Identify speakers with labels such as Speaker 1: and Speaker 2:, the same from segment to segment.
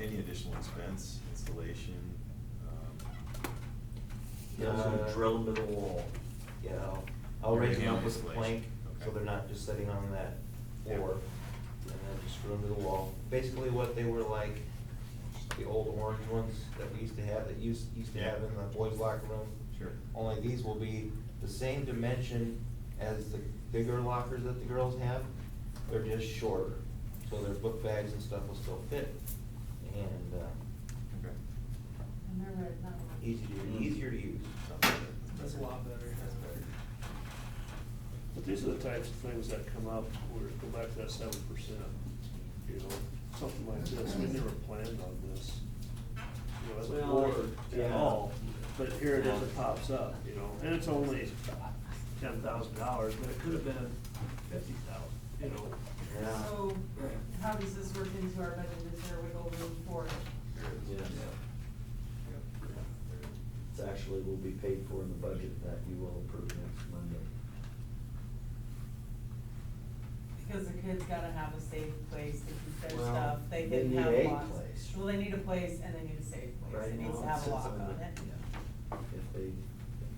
Speaker 1: Any additional expense, installation, um,
Speaker 2: You know,
Speaker 1: Uh,
Speaker 2: some drill them in the wall, you know, I'll raise them up with a
Speaker 1: Maybe
Speaker 2: plank, so
Speaker 1: okay.
Speaker 2: they're not just sitting on that
Speaker 1: Yeah.
Speaker 2: floor. And then just screw them to the wall, basically what they were like, the old orange ones that we used to have, that used, used to
Speaker 1: Yeah.
Speaker 2: have in the boys locker room.
Speaker 1: Sure.
Speaker 2: Only these will be the same dimension as the bigger lockers that the girls have, they're just shorter. So their book bags and stuff will still fit, and, uh,
Speaker 1: okay.
Speaker 3: And they're right now.
Speaker 2: easy to, easier to use.
Speaker 4: That's a lot better, that's better.
Speaker 5: But these are the types of things that come up, where go back to that seven percent, you know, something like this, we never planned on this. You know, as a
Speaker 4: Well,
Speaker 5: board at
Speaker 4: yeah.
Speaker 5: all, but here it is, it pops up, you know, and it's only ten thousand dollars, but it could have been fifty thousand, you know.
Speaker 2: Yeah.
Speaker 3: So how does this work into our budget? Is there wiggle room for it?
Speaker 6: Yes. It's actually will be paid for in the budget that you will approve next Monday.
Speaker 3: Because the kids gotta have a safe place to keep their
Speaker 6: Well,
Speaker 3: stuff. They
Speaker 6: they
Speaker 3: didn't
Speaker 6: need
Speaker 3: have
Speaker 6: a
Speaker 3: locks.
Speaker 6: place.
Speaker 3: Well, they need a place and they need a safe place.
Speaker 6: Right
Speaker 3: It needs
Speaker 6: now,
Speaker 3: to have a
Speaker 6: sits
Speaker 3: lock
Speaker 6: on
Speaker 3: on
Speaker 6: the-
Speaker 3: it.
Speaker 6: yeah, If they, if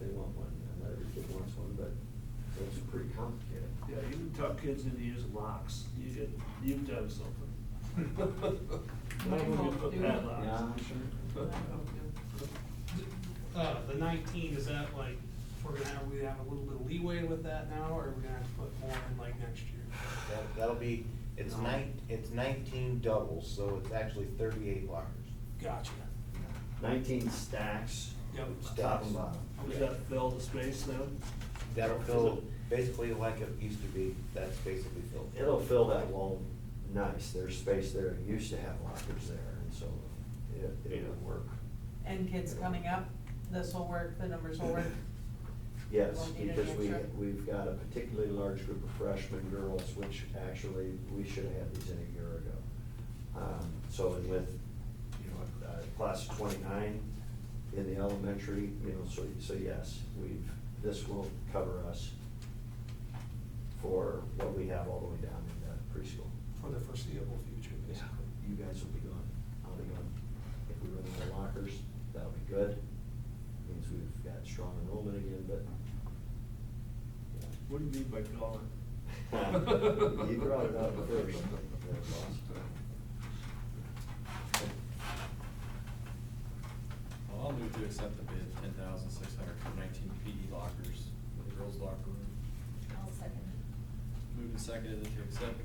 Speaker 6: they want one, and not every kid wants one, but it's pretty complicated.
Speaker 5: Yeah, you can talk kids into using locks, you get, you've done something. I don't want to put padlocks.
Speaker 6: Yeah, I'm sure.
Speaker 4: Uh, the nineteen, is that like, if we're gonna, have we have a little bit of leeway with that now, or are we gonna have to put more in like next year?
Speaker 2: That, that'll be, it's
Speaker 6: Uh-huh.
Speaker 2: nine, it's nineteen doubles, so it's actually thirty-eight lockers.
Speaker 4: Gotcha.
Speaker 6: Nineteen stacks,
Speaker 4: Yep.
Speaker 6: top and bottom.
Speaker 5: Does that fill the space then?
Speaker 2: That'll fill basically like it used to be, that's basically filled.
Speaker 6: It'll fill that wall nice, there's space there, it used to have lockers there, and so it, it'll work.
Speaker 3: And kids coming up, this will work, the numbers will work.
Speaker 6: Yes,
Speaker 3: Won't need any
Speaker 6: because we,
Speaker 3: extra?
Speaker 6: we've got a particularly large group of freshman girls, which actually, we should have had these in a year ago. Um, So, and with, you know, uh, class of twenty-nine in the elementary, you know, so, so yes, we've, this will cover us for what we have all the way down in the preschool.
Speaker 4: For the foreseeable future, basically.
Speaker 6: You guys will be gone, I'll be gone. If we run out of lockers, that'll be good. Means we've got strong enrollment again, but. yeah.
Speaker 5: What do you mean by gone?
Speaker 6: You brought it up first.
Speaker 7: Well, I'll move to accept the bid, ten thousand six hundred for nineteen PE lockers for the girls' locker room.
Speaker 8: I'll second.
Speaker 7: Moved and seconded to accept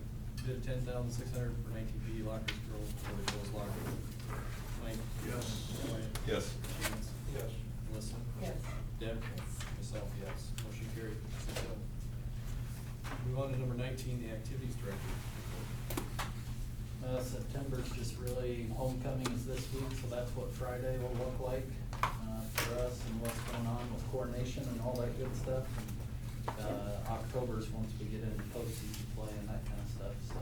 Speaker 7: bid ten thousand six hundred for nineteen PE lockers girls, for the girls' locker room. Mike?
Speaker 5: Yes.
Speaker 7: Ryan?
Speaker 1: Yes.
Speaker 7: Chance?
Speaker 4: Yes.
Speaker 7: Melissa?
Speaker 3: Yes.
Speaker 7: Deb? Myself, yes. Motion carried, six oh. Move on to number nineteen, the activities director.
Speaker 9: Uh, September's just really, homecoming is this week, so that's what Friday will look like, uh, for us and what's going on with coordination and all that good stuff. Uh, October's once we get into postseason play and that kind of stuff, so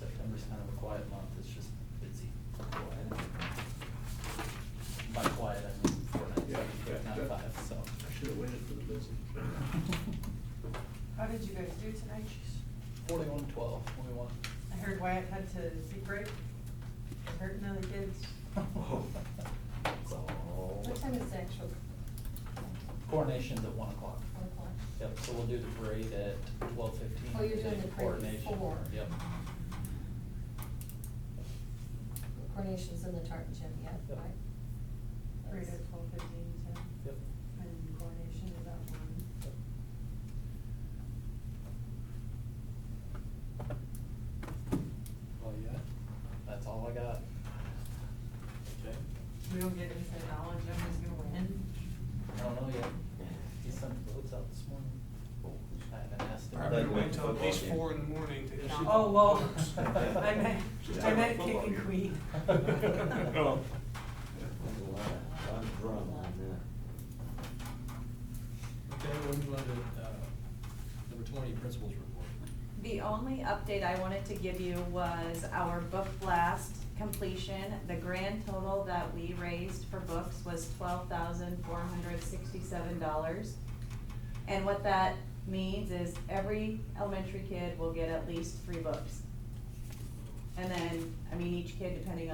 Speaker 9: September's kind of a quiet month, it's just busy. By quiet, I mean four nights,
Speaker 5: Yeah,
Speaker 9: a week,
Speaker 5: yeah,
Speaker 9: not
Speaker 5: yeah.
Speaker 9: five, so.
Speaker 5: I should have waited for the busy.
Speaker 3: How did you guys do tonight?
Speaker 9: Forty-one twelve, twenty-one.
Speaker 3: I heard Wyatt had to take a break. Hurting other kids.
Speaker 8: What time is the actual
Speaker 9: Coronation's at one o'clock.
Speaker 8: one o'clock?
Speaker 9: Yep, so we'll do the parade at twelve fifteen.
Speaker 8: Oh, you're doing the parade before.
Speaker 9: Yep.
Speaker 8: Coronation's in the tartan gym, yeah,
Speaker 9: Yep.
Speaker 8: right?
Speaker 3: Right at twelve fifteen, so.
Speaker 9: Yep.
Speaker 3: And coordination is at one.
Speaker 9: Yep.
Speaker 7: All you got?
Speaker 9: That's all I got.
Speaker 7: Okay.
Speaker 3: We don't get inside knowledge on who's gonna win.
Speaker 9: I don't know yet. He sent the votes out this morning. Oh, I haven't asked him.
Speaker 4: I
Speaker 6: That
Speaker 4: better wait
Speaker 6: went
Speaker 4: till at
Speaker 6: football
Speaker 4: least
Speaker 6: game.
Speaker 4: four in the morning to issue.
Speaker 3: Oh,
Speaker 4: the
Speaker 3: well,
Speaker 4: votes.
Speaker 3: I meant, I meant kick and queen.
Speaker 5: Oh.
Speaker 6: There's a lot of- a lot of drama on
Speaker 7: Okay, we'll move on to, uh, number twenty, principals report.
Speaker 10: The only update I wanted to give you was our book blast completion. The grand total that we raised for books was twelve thousand four hundred sixty-seven dollars. And what that means is every elementary kid will get at least three books. And then, I mean, each kid, depending